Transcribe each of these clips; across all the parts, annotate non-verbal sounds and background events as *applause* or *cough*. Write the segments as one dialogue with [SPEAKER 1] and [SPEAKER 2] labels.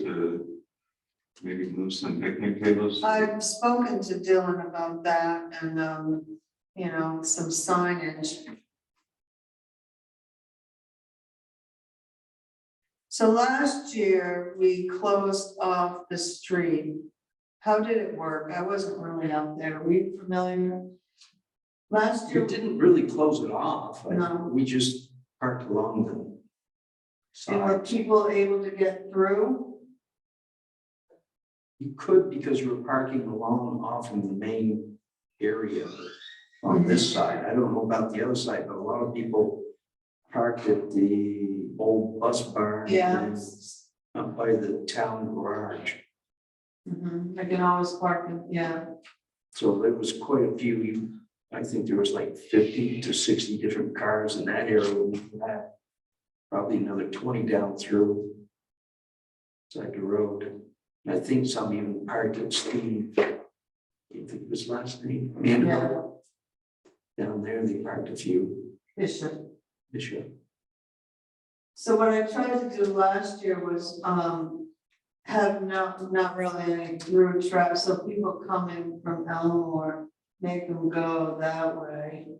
[SPEAKER 1] to maybe move some picnic tables.
[SPEAKER 2] I've spoken to Dylan about that and, um, you know, some signage. So last year, we closed off the street. How did it work? I wasn't really out there. Are we familiar? Last
[SPEAKER 3] You
[SPEAKER 2] year,
[SPEAKER 3] didn't really close it off. I-
[SPEAKER 2] No.
[SPEAKER 3] We just parked along the
[SPEAKER 2] and were
[SPEAKER 3] side.
[SPEAKER 2] people able to get through?
[SPEAKER 3] You could because you were parking along off in the main area on
[SPEAKER 2] Mhm.
[SPEAKER 3] this side. I don't know about the other side, but a lot of people parked at the old bus barn.
[SPEAKER 2] Yeah.
[SPEAKER 3] and Up by the town garage.
[SPEAKER 2] Mhm, I can always park, in- yeah.
[SPEAKER 3] So there was quite a few. You- I think there was like fifty to sixty different cars in that area. when we left. Probably another twenty down through. Side the road. And I think some even parked at Steve. I think was last name. Mandel. Down there, they parked a few
[SPEAKER 2] Bishop.
[SPEAKER 3] this year.
[SPEAKER 2] So what I tried to do last year was, um, have not, not really any through traffic, so people coming from Elmore, make them go that way.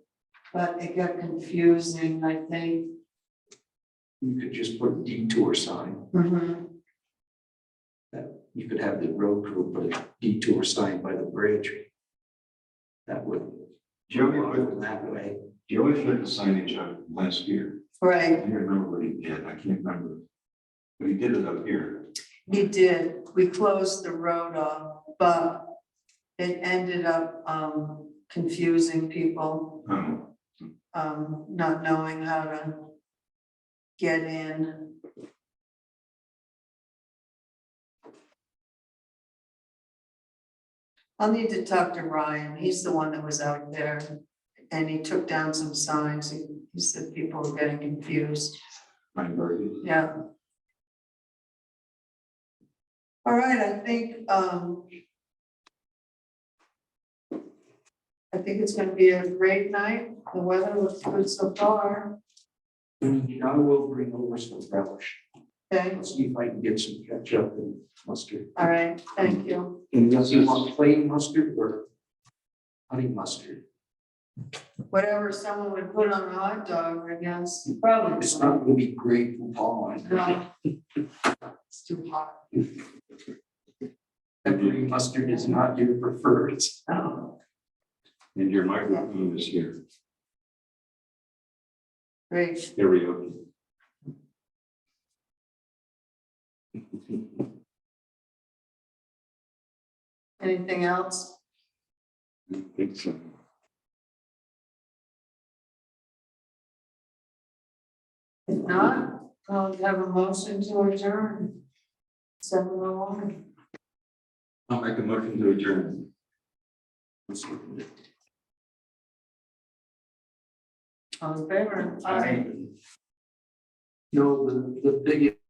[SPEAKER 2] But it got confusing, I think.
[SPEAKER 3] You could just put a detour sign. You could have the road crew put a detour sign by the bridge. That would.
[SPEAKER 1] Joey, what-
[SPEAKER 3] That way.
[SPEAKER 1] Joey put the signage up last year. I
[SPEAKER 2] Right,
[SPEAKER 1] can't remember what he did. I can't remember. But he did it up here.
[SPEAKER 2] we did, we closed the road off, but it ended up, um, confusing people,
[SPEAKER 1] Um,
[SPEAKER 2] um, not knowing how to get in. I'll need to talk to Ryan. He's the one that was out there and he took down some signs. He he said people were getting confused.
[SPEAKER 1] Ryan Burke.
[SPEAKER 2] Yeah. All right, I think, um, I think it's gonna be a great night. The weather looks good so far.
[SPEAKER 3] And I will bring over some relish.
[SPEAKER 2] Okay,
[SPEAKER 3] Let's see if I can get some ketchup and mustard.
[SPEAKER 2] all right, thank you.
[SPEAKER 3] And does he want plain mustard or honey mustard?
[SPEAKER 2] Whatever someone would put on a hot dog, I guess, probably.
[SPEAKER 3] It's not gonna be great for Paul.
[SPEAKER 2] No. *laughs* It's too hot.
[SPEAKER 3] Peppery mustard is not your preferred.
[SPEAKER 2] Oh,
[SPEAKER 1] And your microphone is here.
[SPEAKER 2] great.
[SPEAKER 1] Here we go.
[SPEAKER 2] Anything else?
[SPEAKER 1] Thanks.
[SPEAKER 2] If not, I'll have a motion to adjourn. Seven oh one.
[SPEAKER 1] I'll make a motion to adjourn.
[SPEAKER 2] All in favor?
[SPEAKER 3] I. No, the, the biggest